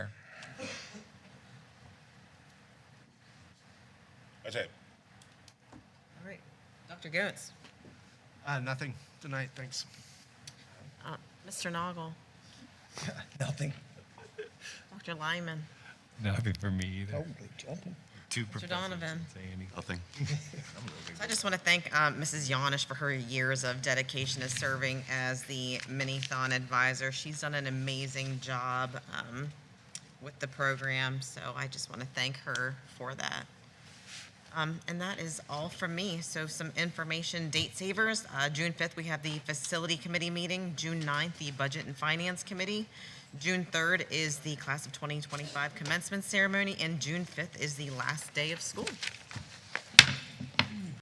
That's it. All right, Dr. Goetz. Uh, nothing tonight, thanks. Uh, Mr. Noggle, Nothing. Dr. Lyman, Nothing for me either. Holy jumping. Two Mr. professors Donovan. didn't say anything. Nothing. So I just want to thank um, Mrs. Yanish for her years of dedication to serving as the Minithon advisor. She's done an amazing job um, with the program, so I just want to thank her for that. Um, And that is all from me. So some information, date savers, uh, June 5th, we have the Facility Committee meeting, June 9th, the Budget and Finance Committee, June 3rd is the Class of 2025 Commencement Ceremony, and June 5th is the last day of school.